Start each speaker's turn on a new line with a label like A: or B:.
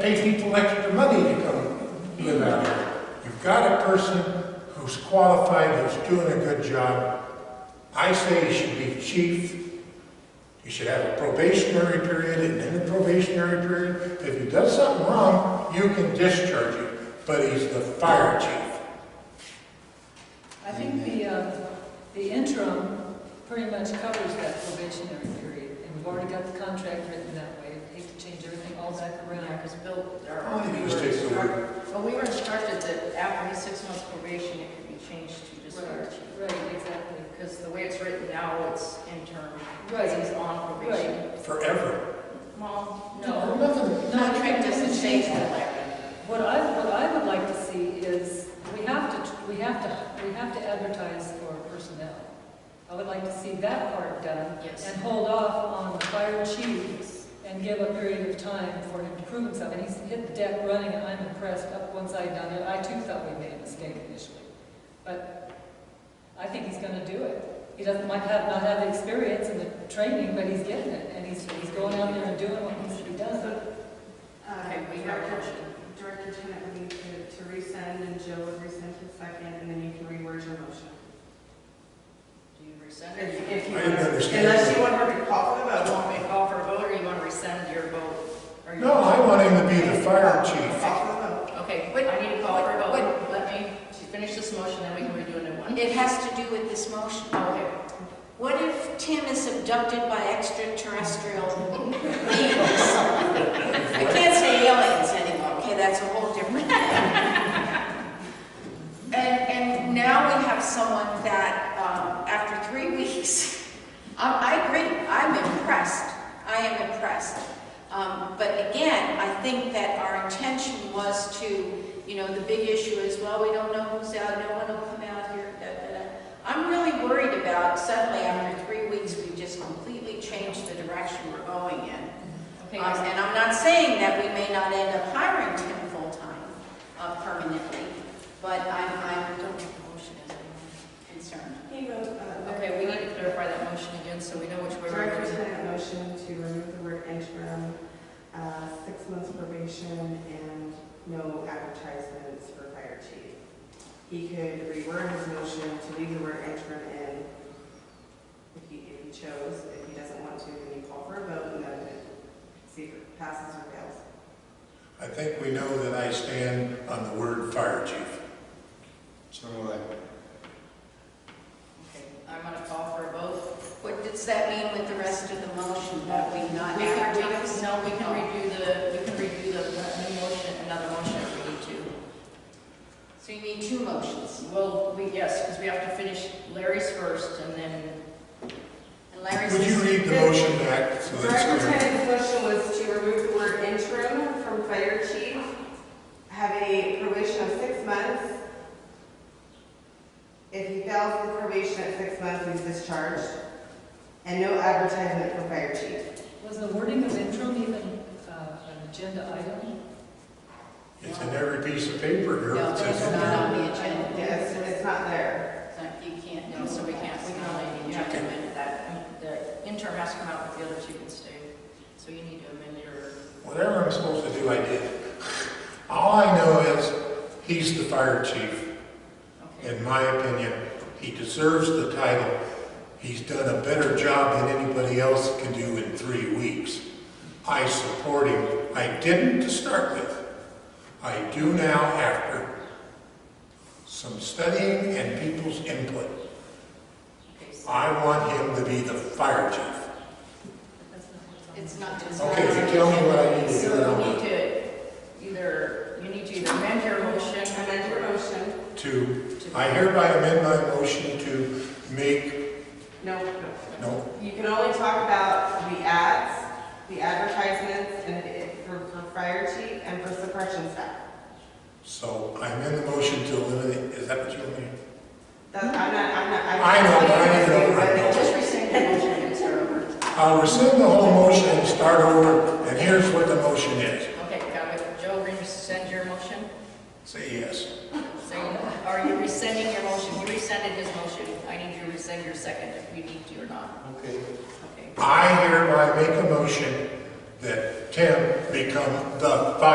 A: pay people extra money to go live out here. You've got a person who's qualified, who's doing a good job. I say he should be chief. You should have a probationary period, and then a probationary period. If he does something wrong, you can discharge him, but he's the fire chief.
B: I think the, uh, the interim pretty much covers that probationary period, and we've already got the contract written that way. I'd hate to change everything all back
C: Yeah,
B: around.
C: because Bill,
A: How
C: or
A: many
C: we were
A: mistakes are there?
C: instructed, well, we were instructed that after his six months probation, it could be changed to
B: Right,
C: discharge.
B: right, exactly.
C: Because the way it's written now, it's interim.
B: Right.
C: He's on probation.
A: Forever.
C: Well,
B: No.
C: no,
A: Nothing.
C: contract doesn't change that.
B: What I, what I would like to see is, we have to, we have to, we have to advertise for personnel. I would like to see that part done.
C: Yes.
B: And hold off on the fire chief and give a period of time for him to prove himself. And he's hit the deck running, and I'm impressed, up one side, down the other. I too thought we made a mistake initially. But I think he's gonna do it. He doesn't, might have, not have the experience and the training, but he's getting it. And he's, he's going out there and doing what needs to be done.
C: Okay, we have a motion.
D: Uh, Director Janet would need to to resend, and Joe would resend his second, and then you can reword your motion.
C: Do you rescind
D: If
C: it?
D: if you
A: I
D: want,
A: didn't understand.
D: unless you want her to call for the
C: You
D: vote.
C: want me to call for a vote, or you want to rescind your vote? Or you-
A: No, I want him to be the fire chief.
D: Call for the vote.
C: Okay, I need to call for a vote.
E: Wait.
C: Let me finish this motion, then we can redo a new one.
E: It has to do with this motion.
C: Okay.
E: What if Tim is abducted by extraterrestrial beings? I can't say aliens anymore, okay, that's a whole different thing. And, and now we have someone that, um, after three weeks, I, I agree, I'm impressed, I am impressed. Um, but again, I think that our intention was to, you know, the big issue is, well, we don't know who's out, no one will come out here, da, da, da. I'm really worried about suddenly after three weeks, we just completely changed the direction we're going in.
C: Okay,
E: Um,
C: guys.
E: And I'm not saying that we may not end up hiring Tim full-time uh, permanently, but I'm, I'm
C: Don't make the motion, is it?
E: concerned.
D: He goes, uh,
C: Okay, we need to clarify that motion again, so we know which way we're
D: Director
C: going.
D: Janet motion to remove the word interim, uh, six months probation, and no advertisements for fire chief. He could reword his motion to leave the word interim in if he, if he chose. If he doesn't want to, then you call for a vote and then see if it passes or fails.
A: I think we know that I stand on the word fire chief.
F: So what I,
C: Okay, I'm gonna call for a vote.
E: What does that mean with the rest of the motion, that we not
C: We can, we can,
E: advertise?
C: no, we can review the, we can review the new motion, another motion if we need
E: So you need two motions,
C: to. Well, we, yes, because we have to finish Larry's first, and then,
E: and Larry
A: Would you
E: says,
A: read the motion back so
D: Director
A: that's clear?
D: Tenet's motion was to remove the word interim from fire chief, have a probation of six months. If he fails the probation at six months, he's discharged, and no advertisement for fire chief.
B: Was the wording of interim even uh, an agenda item?
A: It's in every piece of paper here.
E: No,
A: that says
E: there's
A: it.
E: not on the agenda.
D: Yes, it's not there.
E: You can't,
C: no, so we can't, we can only, you have to amend that. The interim has to come out, but the other two can stay. So you need to amend your,
A: Whatever I'm supposed to do, I did. All I know is, he's the fire chief.
C: okay.
A: In my opinion, he deserves the title. He's done a better job than anybody else can do in three weeks. I support him. I didn't to start with. I do now after some studying and people's input.
C: Okay, so-
A: I want him to be the fire chief.
B: That's not what's on
E: It's not, it's not.
A: Okay, if you tell me what I need to do, then
C: So you
A: I'll
C: need
A: do
C: to either, you need to either amend your motion.
D: Amend your motion.
A: it. To, I hereby amend my motion to make,
D: No, no.
A: no,
D: You can only talk about the ads, the advertisements, and it- for, for fire chief and for suppression staff.
A: so I amend the motion to eliminate, is that what you mean?
D: That, I'm not, I'm not. I'm-
A: I know, but I need to know what I know.
C: Just rescind your motion and start over.
A: I'll rescind the whole motion and start over, and here's what the motion is.
C: Okay, got it. Joe, rescind your motion?
A: Say yes.
C: So you- are you rescinding your motion? You rescinded his motion. I need you to rescind your second if we need to or not.
F: okay,
C: Okay.
A: I hereby make a motion that Tim become the fire